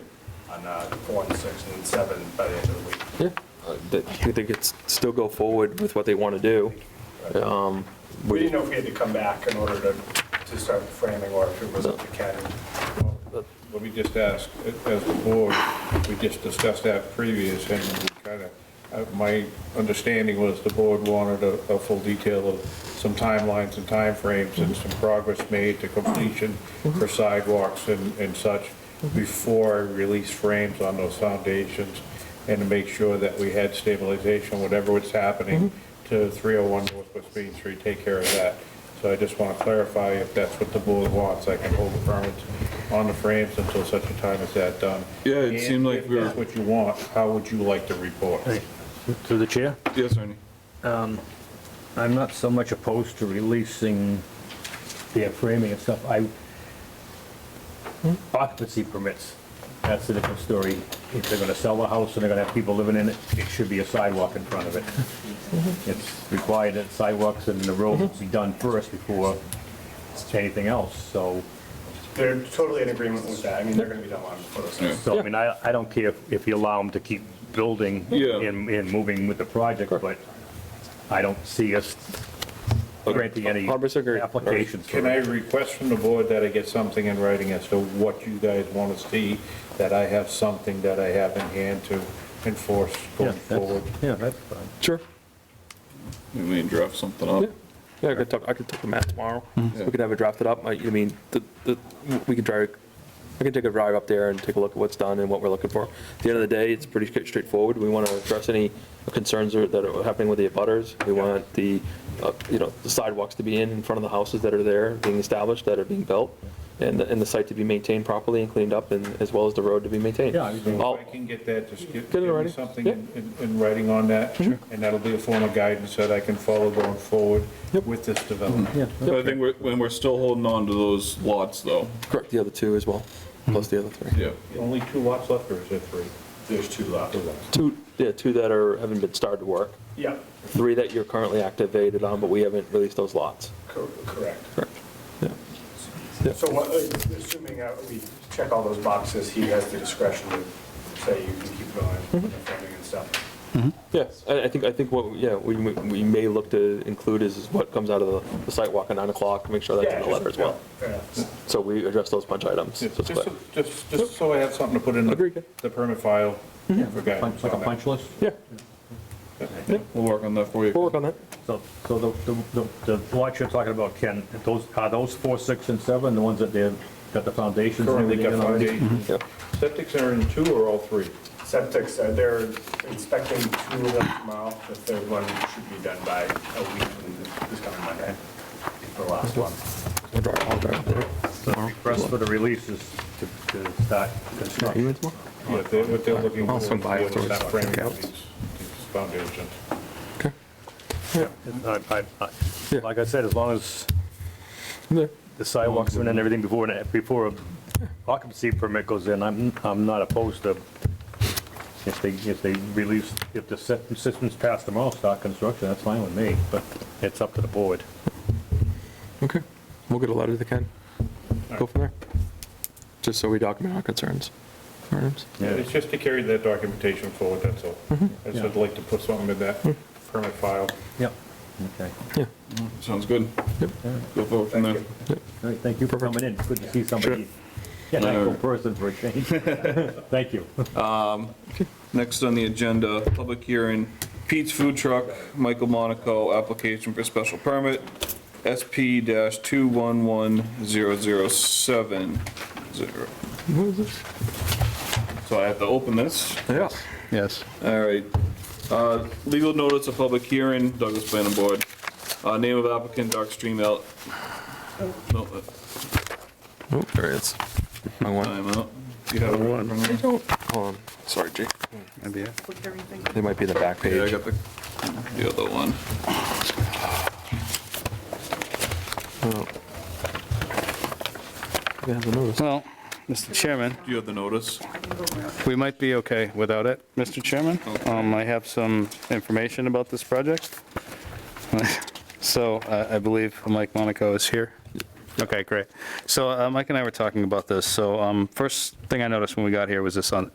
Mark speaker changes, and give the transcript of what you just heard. Speaker 1: on uh, four and six and seven by the end of the week.
Speaker 2: Yeah, I th- I think it's, still go forward with what they want to do. Um,
Speaker 1: We didn't know if we had to come back in order to, to start framing or if it was up to Ken.
Speaker 3: Let me just ask, as the board, we just discussed that previous, and we kind of, my understanding was the board wanted a, a full detail of some timelines and timeframes and some progress made to completion for sidewalks and, and such before I release frames on those foundations and to make sure that we had stabilization, whatever was happening to 301 Northwest Main Street, take care of that. So I just want to clarify, if that's what the board wants, I can hold the permits on the frames until such a time as that done.
Speaker 4: Yeah, it seemed like
Speaker 3: And
Speaker 4: we were-
Speaker 3: If that's what you want, how would you like to report?
Speaker 5: Through the chair?
Speaker 4: Yes, Ernie.
Speaker 5: I'm not so much opposed to releasing the framing and stuff. I, occupancy permits, that's a different story. If they're gonna sell the house and they're gonna have people living in it, it should be a sidewalk in front of it. It's required that sidewalks and the roads be done first before anything else, so.
Speaker 1: They're totally in agreement with that. I mean, they're gonna be done long before this.
Speaker 4: Yeah.
Speaker 5: So, I mean, I, I don't care if- if you allow them to keep building
Speaker 4: Yeah.
Speaker 5: and, and moving with the project, but I don't see us granting any
Speaker 2: Hundred percent agree.
Speaker 5: applications for
Speaker 3: Can I
Speaker 5: it.
Speaker 3: request from the board that I get something in writing as to what you guys want to see, that I have something that I have in hand to enforce
Speaker 5: Yeah,
Speaker 3: going forward?
Speaker 5: that's- yeah, that's fine.
Speaker 2: Sure.
Speaker 4: We may draft something
Speaker 2: Yeah,
Speaker 4: up.
Speaker 2: Yeah, I could talk, I could talk to Matt tomorrow.
Speaker 4: Yeah.
Speaker 2: We could have it drafted up. I I mean, the, the, we could drive, I could take a drive up there and take a look at what's done and what we're looking for. At the end of the day, it's pretty straight- straightforward. We want to address any concerns that are happening with the abutters. We want the, uh, you know, the sidewalks to be in in front of the houses that are there, being established, that are being built, and, the- and the site to be maintained properly and cleaned up, and as well as the road to be maintained.
Speaker 5: Yeah, I mean-
Speaker 2: All-
Speaker 3: If I can get that, just give
Speaker 2: Get it
Speaker 3: give me
Speaker 2: ready.
Speaker 3: something
Speaker 2: Yeah.
Speaker 3: in, in- in writing on that, and that'll be a form of guidance that I can follow going forward
Speaker 2: Yep.
Speaker 3: with
Speaker 5: Mm-hmm.
Speaker 3: this development.
Speaker 4: But I think we're, when we're still holding on to those lots though.
Speaker 2: Correct, the other two as well, plus the other three.
Speaker 4: Yeah.
Speaker 3: Only two lots left, or is there three?
Speaker 1: There's two left.
Speaker 3: Two lots.
Speaker 2: Two, yeah, two that are, haven't been started work.
Speaker 1: Yeah,
Speaker 2: three that you're currently activated on, but we haven't released those lots.
Speaker 1: cor- correct.
Speaker 2: Yeah. Yeah.
Speaker 1: So what, uh, assuming uh, we check all those boxes, he has the discretion to say you can keep going, with
Speaker 2: Mm-hmm.
Speaker 1: the framing and stuff.
Speaker 2: Yes, I, I think, I think what, yeah, we, may- we may look to include is what comes out of the- the site walk at nine o'clock, make sure that's
Speaker 1: Yeah,
Speaker 2: in the
Speaker 1: just-
Speaker 2: letter as well.
Speaker 1: yeah, fair enough.
Speaker 2: So we address those punch items, so
Speaker 3: Yeah,
Speaker 2: it's clear.
Speaker 3: Just, just, just so I have something to put in
Speaker 2: Agreed, yeah.
Speaker 3: the the permit file for
Speaker 5: Punch-
Speaker 3: guidance
Speaker 5: Like a
Speaker 3: on that.
Speaker 5: punch list?
Speaker 2: Yeah,
Speaker 4: We'll work on that for you.
Speaker 2: we'll work on that.
Speaker 5: So, so the, the, the the lots you're talking about, Ken, those, are those four, six, and seven, the ones that they've got the foundations and
Speaker 3: Currently
Speaker 5: everything
Speaker 3: got
Speaker 5: in already?
Speaker 3: foundations.
Speaker 2: Mm-hmm. Yeah.
Speaker 3: Septics are in two or all three?
Speaker 1: Septic's, uh, they're inspecting two of them tomorrow. The third one should be done by a week from this coming Monday, the last one.
Speaker 2: I'll drive, I'll drive up there.
Speaker 5: So the request for the releases to, to
Speaker 2: Are
Speaker 5: start
Speaker 2: you
Speaker 5: construction.
Speaker 2: in tomorrow?
Speaker 3: Yeah, they- what they're looking for
Speaker 2: I'll
Speaker 3: is to
Speaker 2: swing
Speaker 3: be
Speaker 2: by
Speaker 3: able to
Speaker 2: afterwards.
Speaker 3: start framing
Speaker 2: Okay.
Speaker 3: these these foundations.
Speaker 2: Okay.
Speaker 5: I- I- I-
Speaker 2: Yeah.
Speaker 5: Like I said, as long as
Speaker 2: I'm there.
Speaker 5: the sidewalks in and everything before, and- before a occupancy permit goes in, I'm, I'm not opposed to, if they, if they release, if the sy- system's passed tomorrow, start construction, that's fine with me, but it's up to the board.
Speaker 2: Okay, we'll get a letter to Ken. Go from there. Just so we document our concerns. All right.
Speaker 5: Yeah. Mm-hmm.
Speaker 3: It's just to carry that documentation forward, that's all. I just would like to put something in that permit file.
Speaker 5: Yep. Okay.
Speaker 4: Sounds good.
Speaker 2: Yep.
Speaker 4: Go forward from there.
Speaker 5: All right, thank you for coming in. Good to see somebody, an actual person for a change. Thank you.
Speaker 4: Next on the agenda, public hearing, Pete's Food Truck, Michael Monaco, application for special permit, SP-211007.
Speaker 2: What is this?
Speaker 4: So I have to open this.
Speaker 2: Yeah.
Speaker 6: Yes.
Speaker 4: All right. Uh, Legal notice of public hearing, Douglas Planning Board. Uh, Name of applicant, Dark Stream Out. No, uh,
Speaker 2: Oh, there it is. My one.
Speaker 4: Time Out. You have one from there?
Speaker 2: Hold on. Sorry, Jake. They might be in the back
Speaker 4: Yeah, I
Speaker 2: page.
Speaker 4: got the, the other one.
Speaker 2: Yeah, the notice.
Speaker 6: Well, Mr. Chairman,
Speaker 4: Do you have the notice?
Speaker 6: we might be okay without it, Mr. Chairman. Um, I have some information about this project. So uh, I believe Mike Monaco is here. Okay, great. So uh, Mike and I were talking about this. So um, first thing I noticed when we got here was this on,